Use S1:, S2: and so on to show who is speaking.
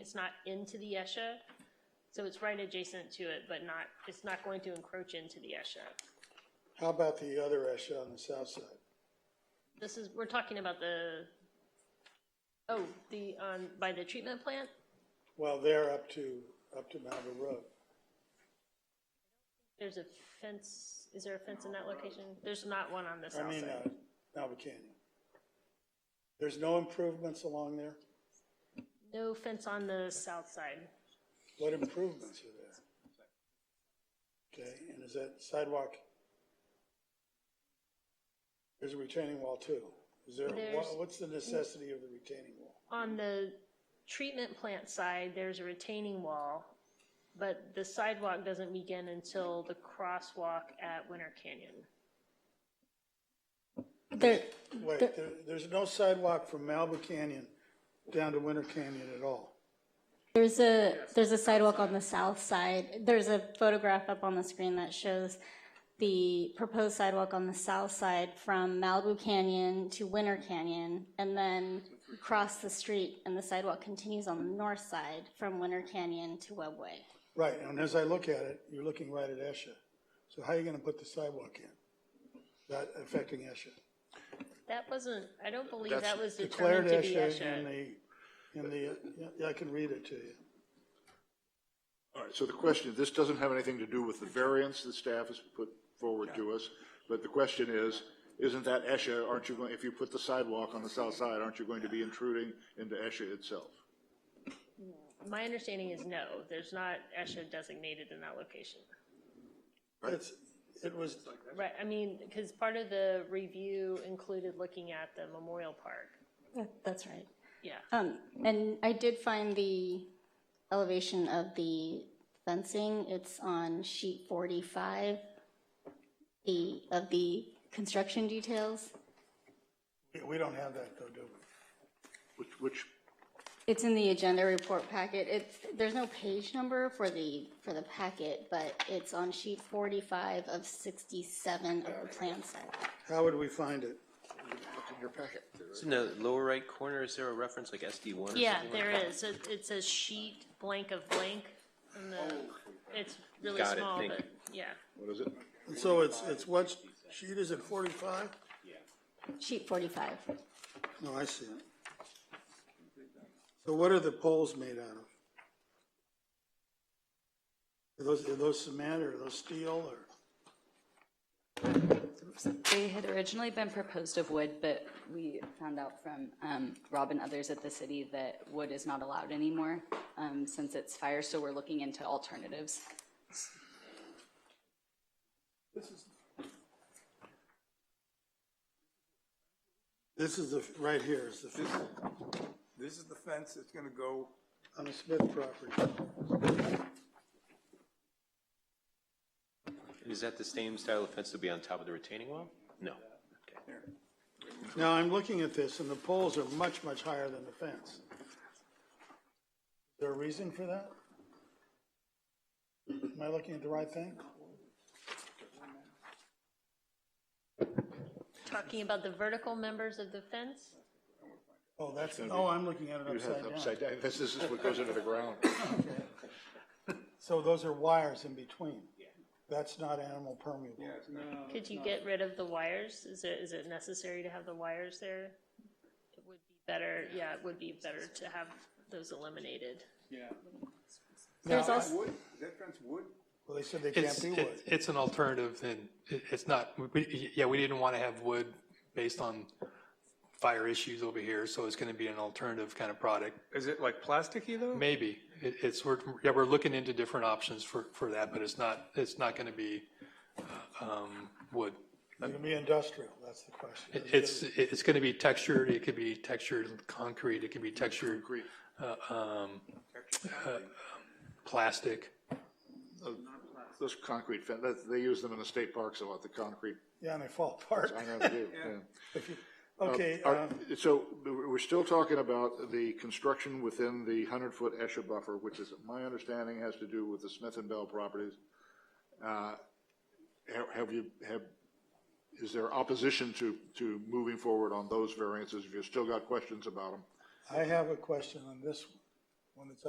S1: it's not into the ESHA. So it's right adjacent to it, but not, it's not going to encroach into the ESHA.
S2: How about the other ESHA on the south side?
S1: This is, we're talking about the, oh, the, on, by the treatment plant?
S2: Well, they're up to, up to Malibu Road.
S1: There's a fence, is there a fence in that location? There's not one on this
S2: I
S1: south
S2: mean,
S1: side.
S2: uh, Malibu Canyon. There's no improvements along there?
S1: No fence on the south side.
S2: What improvements are there? Okay, and is that sidewalk? There's a retaining wall too. Is there,
S1: There's-
S2: wha- what's the necessity of the retaining wall?
S1: On the treatment plant side, there's a retaining wall, but the sidewalk doesn't begin until the crosswalk at Winter Canyon.
S3: There,
S2: Wait, there, there's no sidewalk from Malibu Canyon down to Winter Canyon at all.
S3: there's a, there's a sidewalk on the south side. There's a photograph up on the screen that shows the proposed sidewalk on the south side from Malibu Canyon to Winter Canyon, and then across the street, and the sidewalk continues on the north side from Winter Canyon to Webway.
S2: Right, and as I look at it, you're looking right at ESHA. So how are you gonna put the sidewalk in? That affecting ESHA?
S1: That wasn't, I don't believe
S4: That's
S1: that was
S2: Declared
S1: determined to be
S2: ESHA in
S1: ESHA.
S2: the, in the, yeah, I can read it to you.
S4: All right, so the question, this doesn't have anything to do with the variance the staff has put forward to us, but the question is, isn't that ESHA, aren't you going, if you put the sidewalk on the south side, aren't you going to be intruding into ESHA itself?
S1: My understanding is no, there's not ESHA designated in that location.
S2: It's, it was,
S1: Right, I mean, because part of the review included looking at the memorial park,
S3: That- That's right.
S1: yeah.
S3: Um, and I did find the elevation of the fencing. It's on sheet forty-five, the, of the construction details.
S2: we don't have that though, do we?
S4: Which, which,
S3: It's in the agenda report packet. It's, there's no page number for the, for the packet, but it's on sheet forty-five of sixty-seven of the plan set.
S2: How would we find it?
S5: It's in the lower right corner, is there a reference like SD one or something?
S1: Yeah,
S5: like
S1: there
S5: that?
S1: is, it, it says sheet blank of blank, and the, it's really
S5: Got it,
S1: small,
S5: thank
S1: but, yeah.
S4: what is it?
S2: And So it's, it's what, sheet is it forty-five?
S3: Sheet forty-five.
S2: No, I see it. So what are the poles made out of? Are those, are those cement or are those steel or?
S6: They had originally been proposed of wood, but we found out from um, Rob and others at the city that wood is not allowed anymore um, since it's fire, so we're looking into alternatives.
S2: This is the, right here is the,
S7: This is the fence that's gonna go,
S2: on the Smith property.
S5: Is that the same style of fence that'll be on top of the retaining wall? No.
S2: Now, I'm looking at this, and the poles are much, much higher than the fence. Is there a reason for that? Am I looking at the right thing?
S1: Talking about the vertical members of the fence,
S2: Oh, that's, oh, I'm looking at it
S4: You have
S2: upside down.
S4: upside down, this this is what goes into the ground.
S2: So those are wires in between. That's not animal permeable.
S1: could you get rid of the wires? Is it, is it necessary to have the wires there? It would be better, yeah, it would be better to have those eliminated.
S3: There's
S2: Now, I-
S3: also,
S7: wood, is that fence wood?
S2: Well, they said they can't
S8: It's,
S2: be
S8: it-
S2: wood.
S8: it's an alternative and it, it's not, we- we, yeah, we didn't want to have wood based on fire issues over here, so it's going to be an alternative kind of product.
S7: Is it like plasticky though?
S8: Maybe. It, it's, we're, yeah, we're looking into different options for, for that, but it's not, it's not going to be, um, wood.
S2: It's gonna be industrial, that's the question.
S8: It- It's, it's going to be textured. It could be textured concrete. It could be textured, uh, um, uh, plastic.
S4: Those concrete fence, that, they use them in the state parks a lot, the concrete,
S2: Yeah, and they fall apart.
S4: I know they do, yeah.
S8: Oh,
S2: Okay,
S4: Are-
S2: um,
S4: So we're still talking about the construction within the 100-foot ESHA buffer, which is, my understanding, has to do with the Smith and Bell properties. Uh, ha- Have you, have, is there opposition to, to moving forward on those variances? If you've still got questions about them?
S2: I have a question on this one, one that's up